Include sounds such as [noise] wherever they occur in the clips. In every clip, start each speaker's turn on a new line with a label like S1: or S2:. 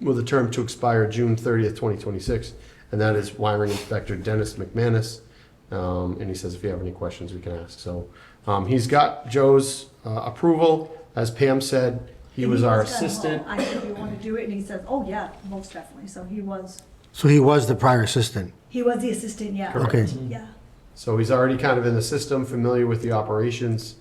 S1: with a term to expire June 30th, 2026, and that is wiring inspector Dennis McManus. Um, And he says if you have any questions, we can ask. So um, he's got Joe's uh, approval. As Pam said, he
S2: And
S1: was our
S2: done, "Oh,
S1: assistant.
S2: I think you want to do it, and he says, oh, yeah, most definitely. So he was,
S3: So he was the prior assistant.
S2: he was the assistant, yeah.
S3: Okay.
S2: Yeah,
S1: Mm-hmm. So he's already kind of in the system, familiar with the operations,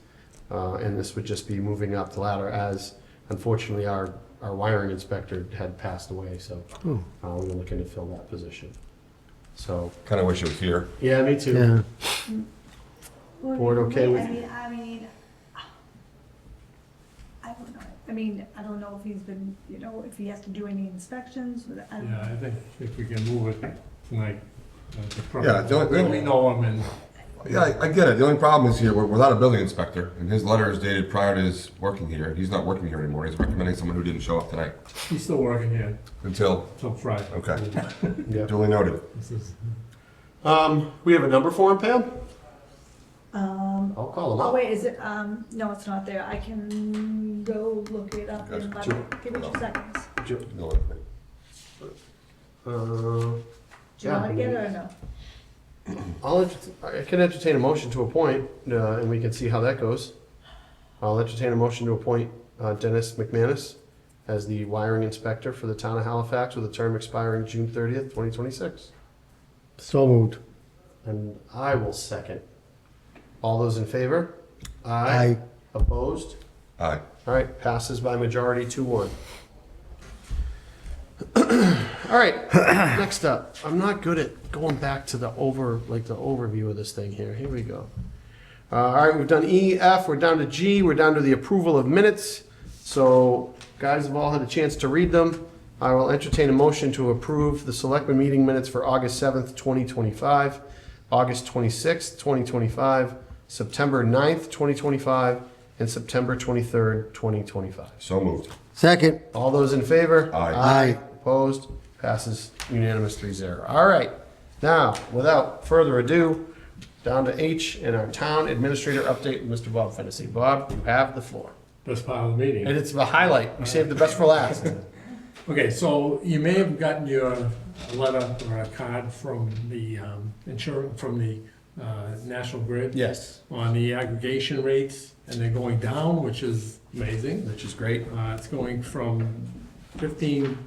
S1: uh, and this would just be moving up the ladder as unfortunately our, our wiring inspector had passed away, so
S3: Oh.
S1: uh, we were looking to fill that position. So,
S4: Kind of wish it was here.
S1: yeah, me too.
S3: Yeah.
S1: Board okay with-
S2: I mean, I mean, I don't know. I mean, I don't know if he's been, you know, if he has to do any inspections, but I don't
S5: Yeah,
S2: know.
S5: I think if we can move it tonight. that's the problem.
S4: Yeah, the only thing-
S5: We know him and,
S4: Yeah, I, I get it. The only problem is here, we're without a building inspector, and his letter is dated prior to his working here. He's not working here anymore. He's recommending someone who didn't show up tonight
S5: he's still working here
S4: until
S5: till Friday.
S4: Okay.
S1: [laughs] Yeah.
S4: duly noted.
S5: This is-
S1: Um, we have a number for him, Pam?
S2: Um,
S1: I'll call him
S2: oh,
S1: up.
S2: wait, is it, um, no, it's not there. I can go look it up in
S4: That's
S2: about,
S4: true.
S2: give me two seconds.
S1: Jo-
S4: No,
S1: uh,
S2: Do you
S1: Yeah.
S2: want to get it or no?
S1: I'll, ent- I can entertain a motion to appoint, uh, and we can see how that goes. I'll entertain a motion to appoint uh, Dennis McManus as the wiring inspector for the town of Halifax with a term expiring June thirtieth, twenty twenty-six.
S3: So moved.
S1: And I will second. All those in favor?
S3: Aye.
S1: Opposed?
S4: Aye.
S1: All right, passes by majority two one. All right, next up, I'm not good at going back to the over, like the overview of this thing here. Here we go. Uh, all right, we've done E, F, we're down to G, we're down to the approval of minutes. So guys have all had a chance to read them. I will entertain a motion to approve the selectmen meeting minutes for August seventh, twenty twenty-five, August twenty-sixth, twenty twenty-five, September 9th, twenty twenty-five, and September twenty-third, twenty twenty-five.
S4: So moved.
S3: Second.
S1: All those in favor?
S4: Aye.
S3: Aye.
S1: Opposed? Passes unanimous 3-0. All right. Now, without further ado, down to H and our town administrator update with Mr. Bob Fennessy. Bob, you have the floor.
S5: Best part of the meeting.
S1: And it's the highlight. We saved the best for last.
S5: Okay, so you may have gotten your letter or a card from the um, insurance, from the uh, National Grid.
S1: Yes,
S5: On the aggregation rates, and they're going down, which is amazing.
S1: which is great.
S5: Uh, it's going from fifteen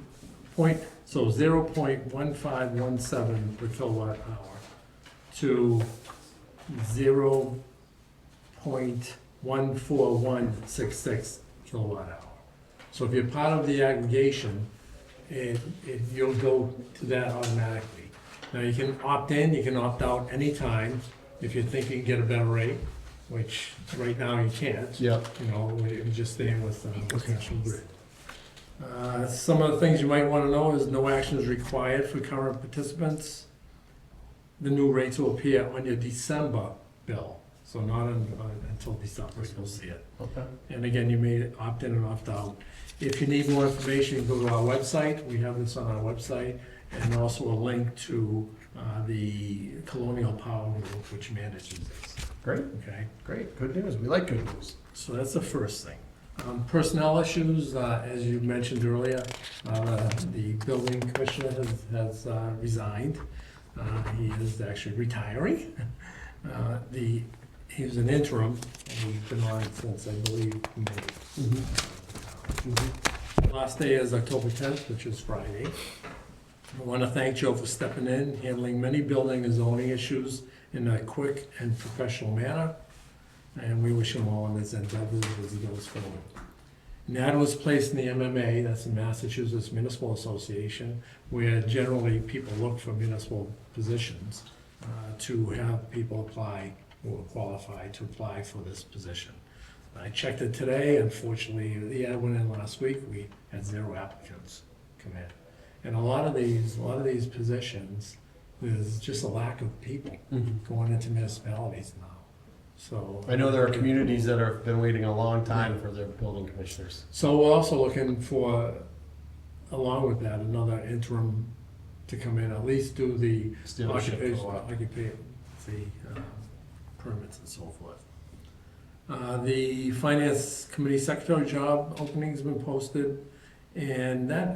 S5: point, so zero point one five one seven per kilowatt hour to zero point one four one six six kilowatt hour. So if you're part of the aggregation, it, it, you'll go to that automatically. Now, you can opt in, you can opt out anytime if you think you can get a better rate, which right now you can't
S1: Yep.
S5: you know, we are just staying with uh, with National Grid. Uh, Some of the things you might want to know is no action is required for current participants. The new rates will appear on your December bill, so not un- un- until December, you'll see it.
S1: Okay.
S5: And again, you may opt in and opt out. If you need more information, you can go to our website, we have this on our website, and also a link to uh, the Colonial Power Group, which manages this,
S1: Great,
S5: okay?
S1: great. Good news. We like good news.
S5: So that's the first thing. Um, Personnel issues, uh, as you mentioned earlier, uh, the building commissioner has- has uh, resigned. Uh, He is actually retiring. [laughs] Uh, The, he was an interim, and he's been on since, I believe, May. Last day is October 10th, which is Friday. I want to thank Joe for stepping in, handling many building and zoning issues in a quick and professional manner and we wish him all in his endeavors as he goes forward. Nat was placed in the MMA, that's the Massachusetts Municipal Association, where generally people look for municipal positions uh, to have people apply who are qualified to apply for this position. I checked it today, unfortunately, the ad went in last week, we had zero applicants come in. And a lot of these, a lot of these positions, there's just a lack of people going into municipalities now, so.
S1: I know there are communities that have been waiting a long time for their building commissioners.
S5: So we're also looking for, along with that, another interim to come in, at least do the
S1: Still shit for a
S5: occupation,
S1: while.
S5: occupation uh, permits and so forth. Uh, The finance committee secretary job opening's been posted, and that